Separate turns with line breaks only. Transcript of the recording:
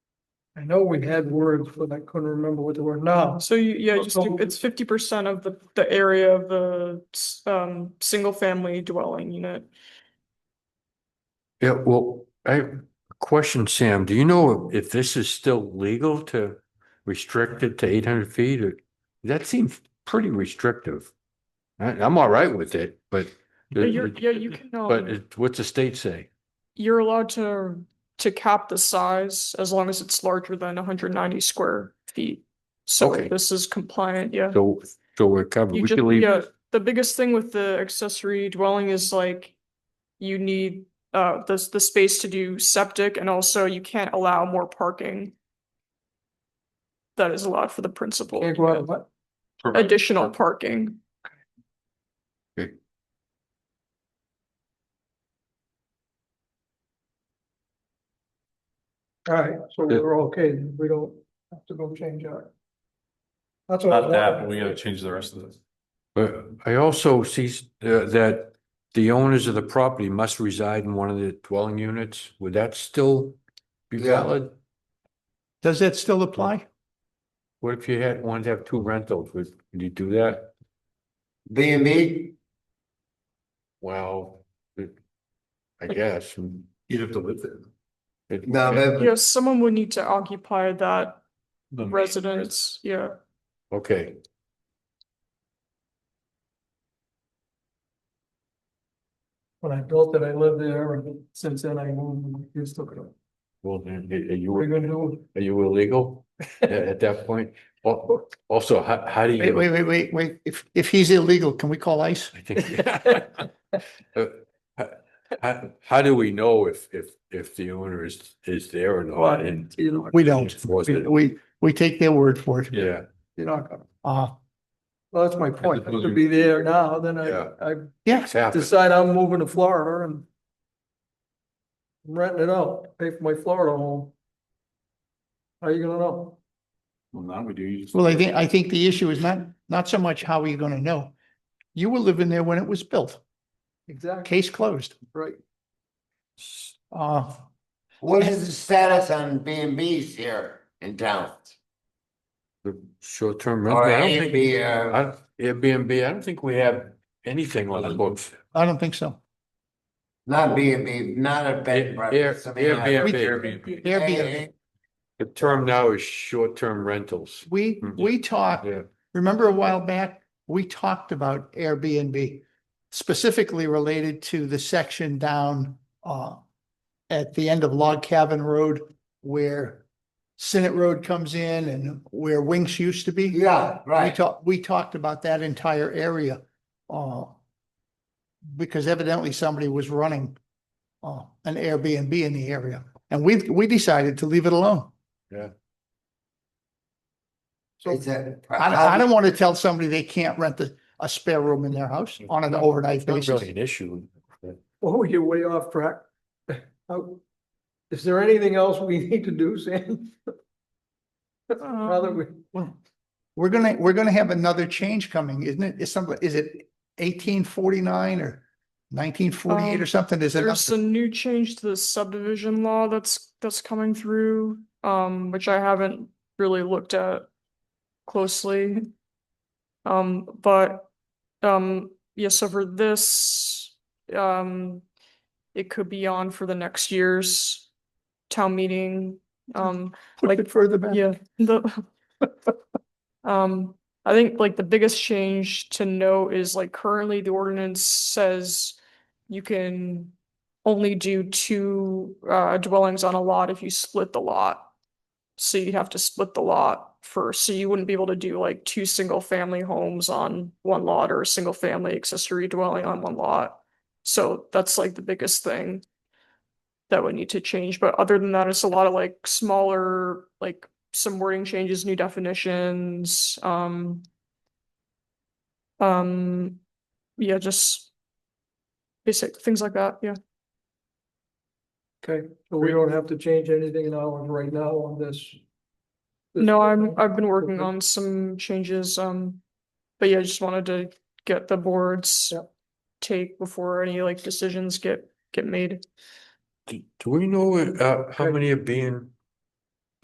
I know we had words, but I couldn't remember what they were now.
So you, yeah, just, do-
Okay.
it's fifty percent of the, the area of the, s- um, single family dwelling unit.
Yeah, well, I have a question, Sam. Do you know if this is still legal to restrict it to eight hundred feet or? That seems pretty restrictive. I, I'm all right with it, but.
Yeah, you're, yeah, you can,
But
um,
it- what's the state say?
you're allowed to, to cap the size as long as it's larger than hundred and ninety square feet. So
Okay.
this is compliant, yeah.
So, so we're covered.
You
We
just,
can leave.
yeah, the biggest thing with the accessory dwelling is like you need uh the the space to do septic and also you can't allow more parking. That is allowed for the principal.
Can't go out, but
Additional parking.
All right, so we're okay, then. we don't have to go change our. That's what. I
Not that, but
wanted.
we gotta change the rest of this.
But I also see s- uh, that the owners of the property must reside in one of the dwelling units. Would that still be
Yeah.
valid?
Does that still apply?
What if you had, wanted to have two rentals? Would, would you do that?
B and B,
Well, it- I guess.
You'd have to live there.
It-
no, that,
Yes, someone would need to occupy that
The main
residence, yeah.
Okay,
When I built it, I lived there, and since then I moved, and you took it up.
well, then, are you,
What are you gonna do?
are you illegal at, at that point? Al- Also, how, how do
Wait,
you?
wait, wait, wait, wait. If, if he's illegal, can we call ICE?
I think. Uh, how- How, how do we know if, if, if the owner is, is there or not and?
You're not,
We don't.
enforce
We-
it?
We, we take their word for it.
Yeah,
you're not gonna,
Uh,
well, that's my point, I
suppose
could
you-
be there now, then
Yeah.
I, I
yes,
it's happened.
decide I'm moving to Florida and. Renting it out, pay for my Florida home. How you gonna know?
Well, now we do. you just-
well, I think, I think the issue is not, not so much how are you going to know? You were living there when it was built.
Exactly,
Case closed.
right.
Uh,
what is the status on B and Bs here in town?
The short-term
Or
rental. I don't think-
Airbnb, uh,
I- Airbnb, I don't think we have anything on the books.
I don't think so.
not B and B, not a bed and
Air-
breakfast. I mean, uh,
Airbnb.
Airbnb,
The term now is short-term rentals.
we, we talked,
Yeah.
remember a while back, we talked about Airbnb specifically related to the section down uh at the end of Log Cabin Road where Senate Road comes in and where Winks used to be.
Yeah,
We
right.
talked, we talked about that entire area, uh, because evidently somebody was running, uh, an Airbnb in the area. And we, we decided to leave it alone.
It's a-
I, I don't want to tell somebody they can't rent a, a spare room in their house on an overnight
It's not really
basis.
an issue.
Oh, you're way off track. How- Is there anything else we need to do, Sam? Now that
Um,
we,
Well, We're gonna, we're gonna have another change coming, isn't it? Is some, is it eighteen forty-nine or nineteen forty-eight or
Um,
something? Is it?
There's a new change to the subdivision law that's, that's coming through, um, which I haven't really looked at closely. Um, but, um, yeah, so for this, um, it could be on for the next year's town meeting. Um,
Put
like-
it further back.
yeah, the um, I think like the biggest change to note is like currently the ordinance says you can only do two uh dwellings on a lot if you split the lot. So you have to split the lot first, so you wouldn't be able to do like two single family homes on one lot or a single family accessory dwelling on one lot. So that's like the biggest thing that would need to change, but other than that, it's a lot of like smaller, like some wording changes, new definitions, um. Um, yeah, just basic things like that, yeah.
okay, so we don't have to change anything now, and right now on this. this-
No, I'm, I've been working
Okay.
on some changes, um, but yeah, I just wanted to get the board's
Yep.
take before any like decisions get, get made.
Do do we know, uh, how
Okay.
many are being